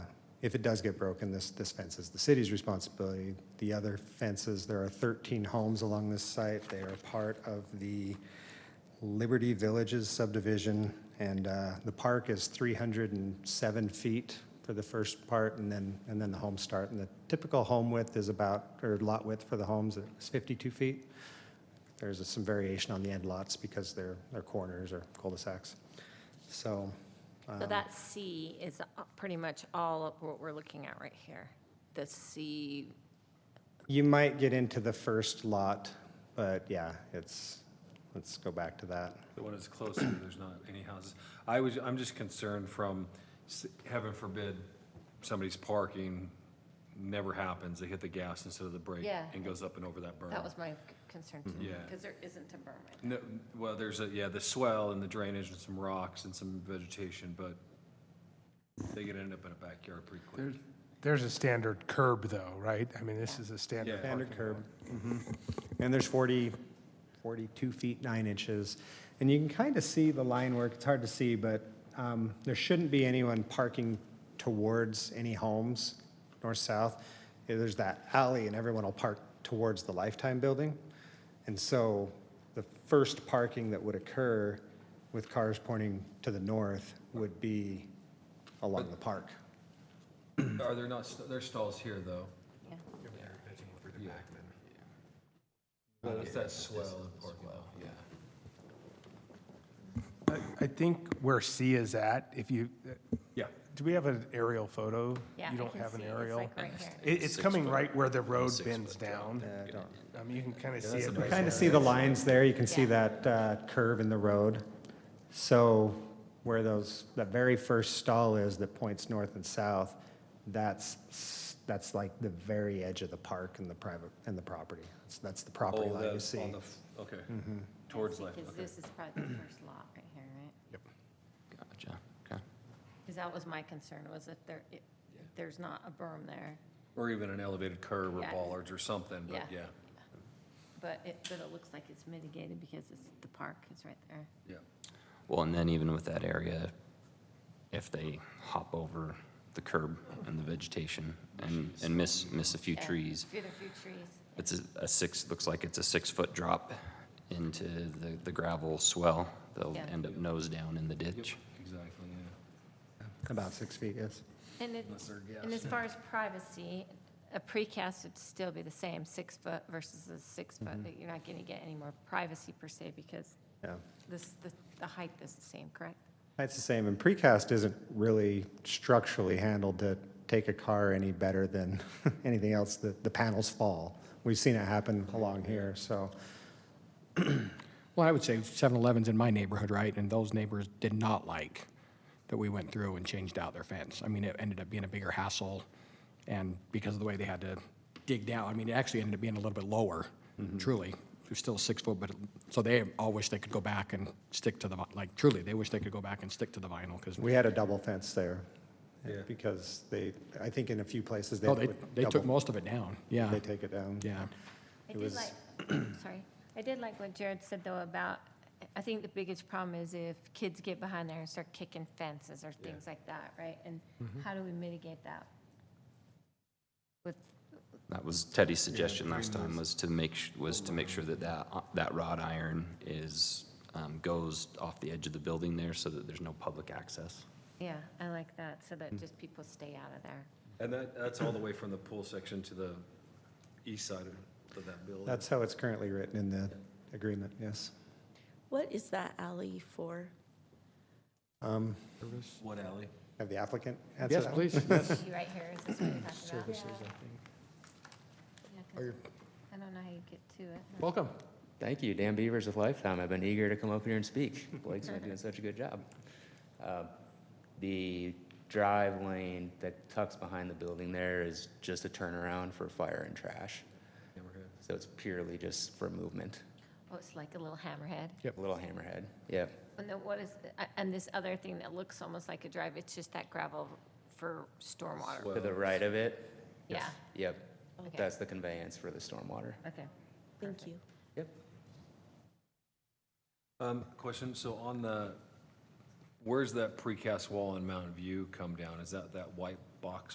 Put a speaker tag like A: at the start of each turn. A: if it does get broken, this, this fence is the city's responsibility. The other fences, there are 13 homes along this site. They are part of the Liberty Villages subdivision, and uh, the park is 307 feet for the first part, and then, and then the homes start. And the typical home width is about, or lot width for the homes is 52 feet. There's some variation on the end lots because they're, they're corners or cul-de-sacs. So,
B: So that C is a- pretty much all of what we're looking at right here. The C,
A: You might get into the first lot, but yeah, it's, let's go back to that.
C: The one that's closer, there's not any houses. I was, I'm just concerned from, s- heaven forbid, somebody's parking, never happens, they hit the gas instead of the brake.
B: Yeah.
C: And goes up and over that berm.
B: that was my concern too.
C: Yeah.
B: Because there isn't a berm right
C: No, well, there's a, yeah, the swell and the drainage and some rocks and some vegetation, but they could end up in a backyard pretty quick.
D: There's, there's a standard curb though, right? I mean, this is a standard.
C: Yeah.
A: Standard
D: parking lot.
A: curb. Mm-hmm. And there's 40, 42 feet, 9 inches. And you can kind of see the line work, it's hard to see, but um, there shouldn't be anyone parking towards any homes, north, south. Yeah, There's that alley and everyone will park towards the Lifetime Building. And so the first parking that would occur with cars pointing to the north would be along the park.
C: Are there not, st- there's stalls here, though?
B: Yeah.
C: Yeah. But it's that swell and parking lot.
D: I I think where C is at, if you,
C: Yeah,
D: do we have an aerial photo?
B: Yeah,
D: You
B: I
D: don't
B: can
D: have an
B: see it. It's
D: aerial?
B: like right here.
D: It, it's coming right where the road
E: six
D: bends
E: foot drop
D: down.
A: Yeah, I don't-
D: I mean, you can kind of see
C: that's a
D: it. right
A: Kind of
D: there.
A: see the lines there, you can see
B: Yeah.
A: that uh, curve in the road. So where those, that very first stall is that points north and south, that's, s- that's like the very edge of the park and the private, and the property. That's- That's the property
C: Oh,
A: line Mm-hmm. you
C: the,
A: see.
C: on the, f- okay, towards left,
B: Because
C: okay.
B: this is probably the first lot right here, right?
E: Gotcha, okay.
B: Because that was my concern, was that there, it- there's not a berm there,
C: Or even an elevated curb or
B: Yeah.
C: bollards or something, but
B: Yeah.
C: yeah,
B: but it, but it looks like it's mitigated because it's, the park is right there.
C: yeah.
E: Well, and then even with that area, if they hop over the curb and the vegetation and, and miss, miss a few
B: Yeah.
E: trees,
B: Few- There are a few trees.
E: it's a- a six, looks like it's a six-foot drop into the, the gravel swell. They'll
B: Yeah.
E: end up nose down in the ditch.
C: Exactly, yeah.
A: About six feet, yes.
B: And it,
C: Unless they're
B: and as
C: gassed.
B: far as privacy, a precast would still be the same, six foot versus a six foot, that you're not gonna get any more privacy per se, because
A: Yeah.
B: this, the, the height is the same, correct?
A: That's the same, and precast isn't really structurally handled to take a car any better than anything else, the, the panels fall. We've seen it happen along here, so.
F: Well, I would say 7-Eleven's in my neighborhood, right? And those neighbors did not like that we went through and changed out their fence. I mean, it ended up being a bigger hassle, and because of the way they had to dig down, I mean, it actually ended up being a little bit lower,
A: Mm-hmm.
F: truly. It was still six foot, but, it- so they all wish they could go back and stick to the, vi- like, truly, they wish they could go back and stick to the vinyl, because,
A: We had a double fence there.
C: Yeah.
A: Because they, I think in a few places they
F: oh, they,
A: would
F: they took
A: double,
F: most of it down, yeah,
A: they take it down.
F: yeah.
B: I
A: It
B: did
A: was-
B: like, sorry, I did like what Jared said though about, I think the biggest problem is if kids get behind there and start kicking fences or things like that, right? And how do we mitigate that? With,
E: That was Teddy's suggestion last time, was to make, sh- was to make sure that that, that wrought iron is, um, goes off the edge of the building there so that there's no public access.
B: yeah, I like that, so that just people stay out of there.
C: And that, that's all the way from the pool section to the east side of- of that building.
A: That's how it's currently written in the agreement, yes.
G: What is that alley for?
A: Um,
C: What alley?
A: Have the applicant answer
F: Yes,
A: that?
F: please,
B: You right here, is this what you're talking about?
F: services, I think.
B: Yeah, 'cause I don't know how you get to it.
F: Welcome.
H: Thank you, Dan Beavers with Lifetime. I've been eager to come up here and speak. Blake's been doing such a good job. Uh, The drive lane that tucks behind the building there is just a turnaround for fire and trash.
C: Yeah, we're good.
H: So it's purely just for movement.
B: Oh, it's like a little hammerhead.
F: Yep.
H: Little hammerhead, yeah.
B: And then what is, and this other thing that looks almost like a drive, it's just that gravel for stormwater.
C: Swell.
H: To the right of it,
B: Yeah,
H: yep.
B: Okay.
H: That's the conveyance for the stormwater.
B: okay.
G: Thank you.
H: Yep.
C: Um, question, so on the, where's that precast wall in Mountain View come down? Is that that white box